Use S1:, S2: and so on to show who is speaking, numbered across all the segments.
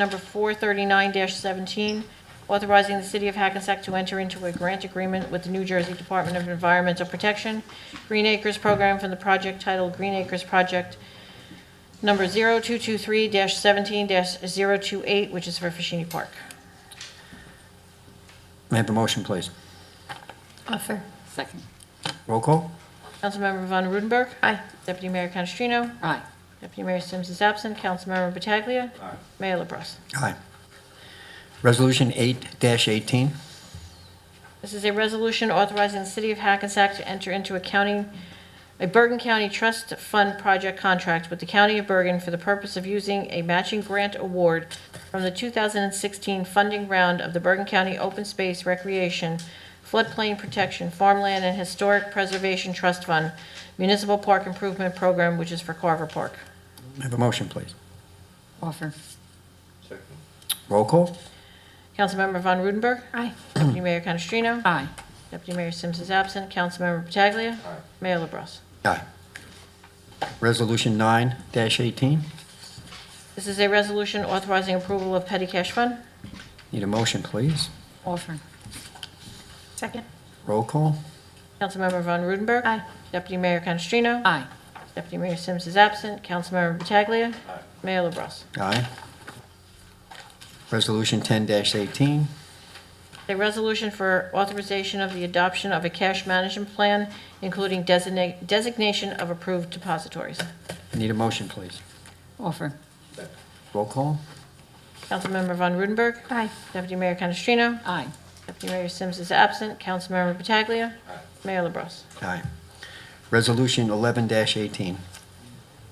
S1: Number 439-17, authorizing the City of Hackensack to enter into a grant agreement with the New Jersey Department of Environmental Protection Green Acres Program from the project titled Green Acres Project Number 0223-17-028, which is for Fashini Park.
S2: May I have a motion, please?
S3: Offer.
S4: Second.
S2: Roll call?
S1: Councilmember Von Rudenberg.
S3: Aye.
S1: Deputy Mayor Canestrino.
S4: Aye.
S1: Deputy Mayor Sims is absent. Councilmember Pataglia. Mayor LaBrus.
S2: Aye. Resolution 8-18,
S1: This is a resolution authorizing the City of Hackensack to enter into a county, a Bergen County Trust Fund project contract with the County of Bergen for the purpose of using a matching grant award from the 2016 funding round of the Bergen County Open Space Recreation Floodplain Protection Farmland and Historic Preservation Trust Fund Municipal Park Improvement Program, which is for Carver Park.
S2: may I have a motion, please?
S4: Offer.
S2: Roll call?
S1: Councilmember Von Rudenberg.
S3: Aye.
S1: Deputy Mayor Canestrino.
S4: Aye.
S1: Deputy Mayor Sims is absent. Councilmember Pataglia. Mayor LaBrus.
S2: Aye. Resolution 9-18,
S1: This is a resolution authorizing approval of petty cash fund.
S2: need a motion, please?
S4: Offer.
S3: Second.
S2: Roll call?
S1: Councilmember Von Rudenberg.
S3: Aye.
S1: Deputy Mayor Canestrino.
S4: Aye.
S1: Deputy Mayor Sims is absent. Councilmember Pataglia. Mayor LaBrus.
S2: Aye. Resolution 10-18,
S1: A resolution for authorization of the adoption of a cash management plan, including designate- designation of approved depositories.
S2: need a motion, please?
S4: Offer.
S2: Roll call?
S1: Councilmember Von Rudenberg.
S3: Aye.
S1: Deputy Mayor Canestrino.
S4: Aye.
S1: Deputy Mayor Sims is absent. Councilmember Pataglia. Mayor LaBrus.
S2: Aye. Resolution 11-18,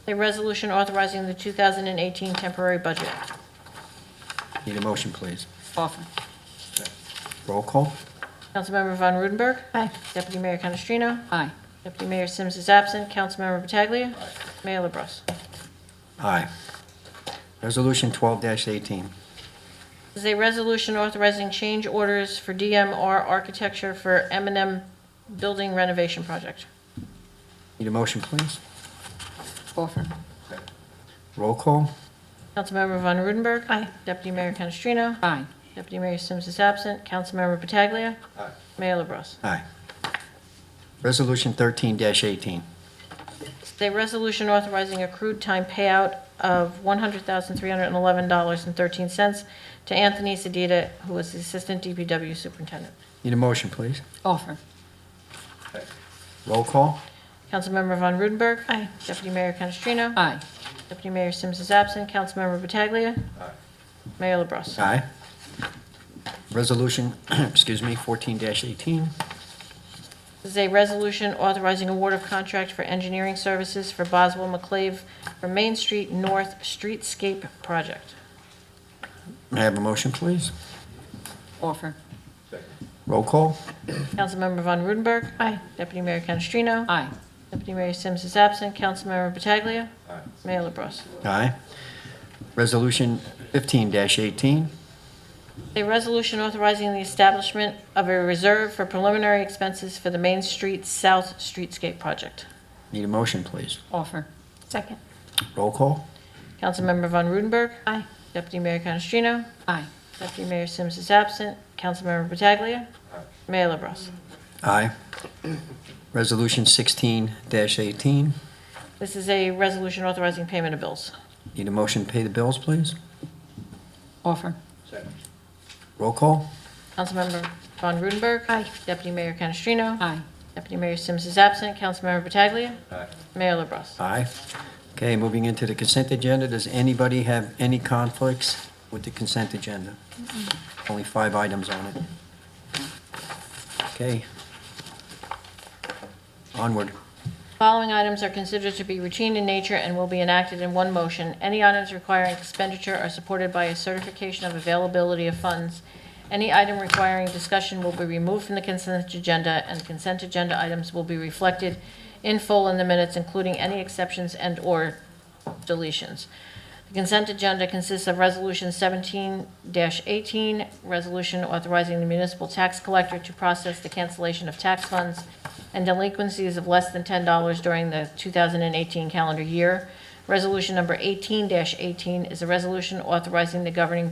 S1: A resolution authorizing the 2018 temporary budget.
S2: need a motion, please?
S4: Offer.
S2: Roll call?
S1: Councilmember Von Rudenberg.
S3: Aye.
S1: Deputy Mayor Canestrino.
S4: Aye.
S1: Deputy Mayor Sims is absent. Councilmember Pataglia. Mayor LaBrus.
S2: Aye. Resolution 12-18,
S1: This is a resolution authorizing change orders for DMR Architecture for m and M Building Renovation Project.
S2: need a motion, please?
S4: Offer.
S2: Roll call?
S1: Councilmember Von Rudenberg.
S3: Aye.
S1: Deputy Mayor Canestrino.
S4: Aye.
S1: Deputy Mayor Sims is absent. Councilmember Pataglia. Mayor LaBrus.
S2: Aye. Resolution 13-18,
S1: This is a resolution authorizing accrued time payout of $100,311.13 to Anthony Sedita, who was the Assistant DPW Superintendent.
S2: need a motion, please?
S4: Offer.
S2: Roll call?
S1: Councilmember Von Rudenberg.
S3: Aye.
S1: Deputy Mayor Canestrino.
S4: Aye.
S1: Deputy Mayor Sims is absent. Councilmember Pataglia. Mayor LaBrus.
S2: Aye. Resolution, excuse me, 14-18,
S1: This is a resolution authorizing award of contract for engineering services for Boswell McClave for Main Street North Streetscape Project.
S2: may I have a motion, please?
S4: Offer.
S2: Roll call?
S1: Councilmember Von Rudenberg.
S3: Aye.
S1: Deputy Mayor Canestrino.
S4: Aye.
S1: Deputy Mayor Sims is absent. Councilmember Pataglia. Mayor LaBrus.
S2: Aye. Resolution 15-18,
S1: A resolution authorizing the establishment of a reserve for preliminary expenses for the Main Street South Streetscape Project.
S2: need a motion, please?
S4: Offer.
S3: Second.
S2: Roll call?
S1: Councilmember Von Rudenberg.
S3: Aye.
S1: Deputy Mayor Canestrino.
S4: Aye.
S1: Deputy Mayor Sims is absent. Councilmember Pataglia. Mayor LaBrus.
S2: Aye. Resolution 16-18,
S1: This is a resolution authorizing payment of bills.
S2: need a motion to pay the bills, please?
S4: Offer.
S2: Roll call?
S1: Councilmember Von Rudenberg.
S3: Aye.
S1: Deputy Mayor Canestrino.
S4: Aye.
S1: Deputy Mayor Sims is absent. Councilmember Pataglia. Mayor LaBrus.
S2: Aye. Okay, moving into the consent agenda, does anybody have any conflicts with the consent agenda? Only five items on it. Okay. Onward.
S1: Following items are considered to be routine in nature and will be enacted in one motion. Any items requiring expenditure are supported by a certification of availability of funds. Any item requiring discussion will be removed from the consent agenda, and consent agenda items will be reflected in full in the minutes, including any exceptions and/or deletions. The consent agenda consists of Resolution 17-18, resolution authorizing the municipal tax collector to process the cancellation of tax funds and delinquencies of less than $10 during the 2018 calendar year. Resolution number 18-18 is a resolution authorizing the governing